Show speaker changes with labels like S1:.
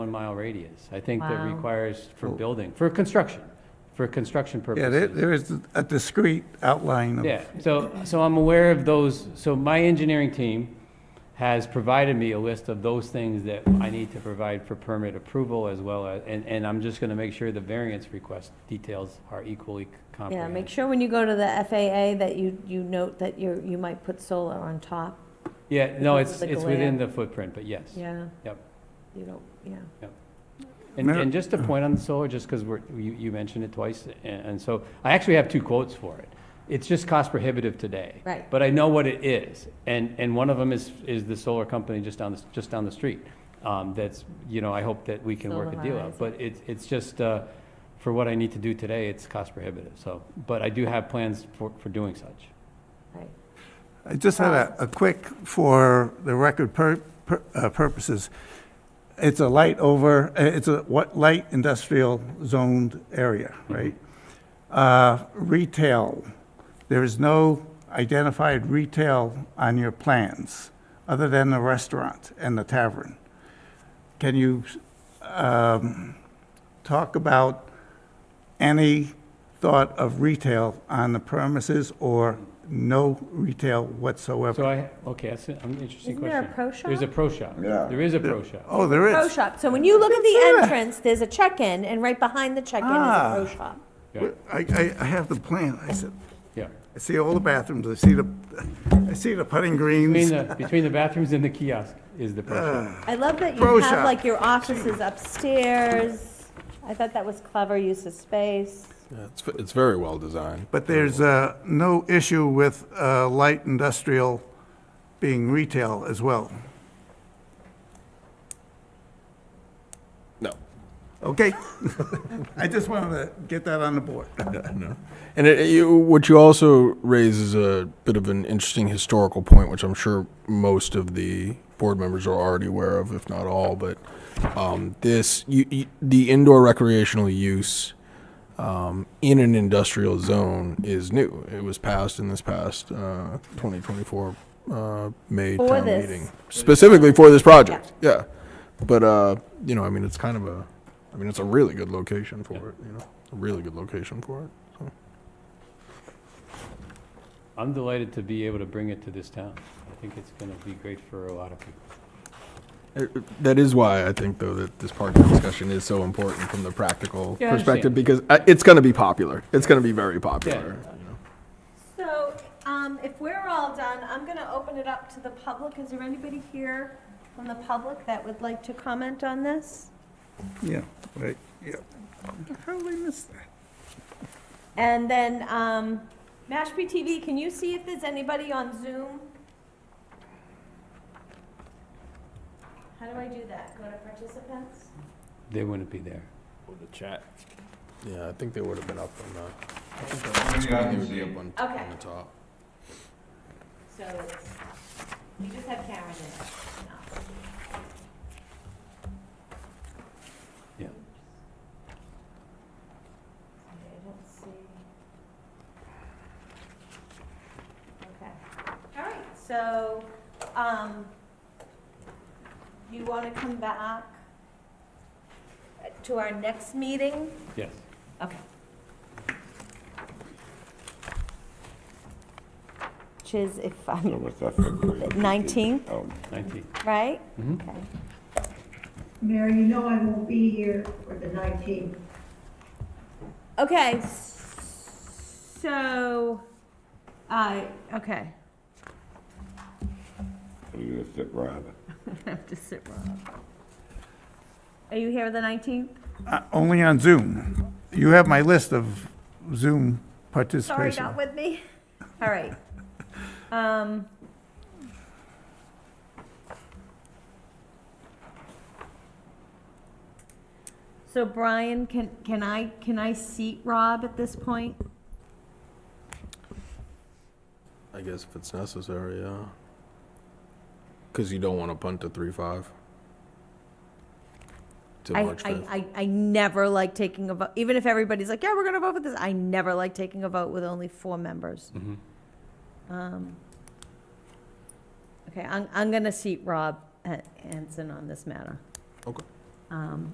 S1: one-mile radius. I think that
S2: Wow.
S1: requires for building, for construction, for construction
S3: Yeah,
S1: purposes.
S3: there, there is a discrete outline of.
S1: Yeah, so, so I'm aware of those, so my engineering team has provided me a list of those things that I need to provide for permit approval as well as, and, and I'm just gonna make sure the variance request details are equally
S2: Yeah, make
S1: comprehensive.
S2: sure when you go to the FAA that you, you note that you're, you might put solar on top,
S1: Yeah, no,
S2: Because
S1: it's,
S2: of the
S1: it's within
S2: glare.
S1: the footprint, but yes.
S2: yeah.
S1: Yep.
S2: You don't, yeah.
S1: And,
S3: Mar-
S1: and just a point on the solar, just because we're, you, you mentioned it twice, a- and so, I actually have two quotes for it. It's just cost prohibitive today.
S2: Right.
S1: But I know what it is, and, and one of them is, is the solar company just down, the just down the street. Um, that's, you know, I hope that we can work a deal out,
S2: Solarize.
S1: but it's, it's just, uh, for what I need to do today, it's cost prohibitive, so, but I do have plans for, for doing such.
S3: I just had a, a quick, for the record pur- pur- uh, purposes, it's a light over, uh, it's a what, light industrial zoned area,
S1: Mm-hmm.
S3: right? Uh, Retail, there is no identified retail on your plans, other than the restaurant and the tavern. Can you um, talk about any thought of retail on the premises or no retail
S1: So
S3: whatsoever?
S1: I, okay, that's an interesting
S2: Isn't
S1: question.
S2: there a pro shop?
S1: There's a pro shop.
S4: Yeah.
S1: There is a pro shop.
S3: Oh, there
S2: Pro
S3: is.
S2: shop, so when you look at the entrance, there's a check-in, and right behind the check-in is a
S3: Ah.
S2: pro shop.
S1: Yeah,
S3: I, I, I have the plan. I said,
S1: yeah.
S3: I see all the bathrooms. I see the, I see the putting
S1: Between
S3: greens.
S1: the, between the bathrooms and the kiosk is the pro shop.
S2: I love that you
S3: Pro
S2: have
S3: shop.
S2: like your offices upstairs. I thought that was clever use of space.
S5: Yeah, It's, v- it's very well designed.
S3: But there's, uh, no issue with, uh, light industrial being retail as well.
S5: No.
S3: Okay? I just wanted to get that on the board.
S5: And it, you, what you also raise is a bit of an interesting historical point, which I'm sure most of the board members are already aware of, if not all. But um, this, you, you, the indoor recreational use um, in an industrial zone is new. It was passed in this past uh, 2024 uh, May
S2: For
S5: town
S2: this.
S5: meeting, specifically for this project. Yeah. But uh, you know, I mean, it's kind of a, I mean, it's a really good location for it. You know, a really good location for it. So.
S1: I'm delighted to be able to bring it to this town. I think it's going to be great for a lot of people.
S5: Uh, That is why I think, though, that this parking discussion is so important from the practical
S1: Yeah, I
S5: perspective, because uh, it's going to be popular. It's going to be very popular. you know.
S2: So, um, if we're all done, I'm gonna open it up to the public. Is there anybody here from the public that would like to comment on this?
S3: Yeah, right, yeah. How did I miss that?
S2: And then, um, Mashpee TV, can you see if there's anybody on Zoom? How do I do that? Go to participants?
S1: They wouldn't be there.
S5: Yeah, I think they would have been up on
S4: Yeah, I see.
S5: on
S2: Okay.
S5: the top.
S2: So it's, you just have Karen in
S1: Yeah.
S2: it. I don't see. Okay, all right, so, um, you want to come back uh, to our next meeting?
S1: Yes.
S2: Okay. Which is if
S4: So
S2: I'm,
S4: what's that, February? Mm-hmm.
S2: 19th?
S4: Oh,
S1: 19.
S2: right?
S1: Mhm.
S2: Okay.
S6: Mayor, you know I won't be here for the 19th.
S2: Okay, s- so, I, okay,
S4: You're gonna sit right.
S2: I have to sit wrong. Are you here the 19th?
S3: Uh, Only on Zoom. You have my list of Zoom
S2: Sorry,
S3: participation.
S2: not with me. All right. Um. So Brian, can, can I, can I seat Rob at this point?
S5: I guess if it's necessary, yeah. Because you don't want to punt to three five. To
S2: I,
S5: March
S2: I,
S5: 5th.
S2: I, I never like taking a vote, even if everybody's like, yeah, we're gonna vote for this, I never like taking a vote with only four members.
S1: Mhm.
S2: Um, Okay, I'm, I'm gonna seat Rob Han- Hanson on uh, this matter.
S5: Okay.
S7: um,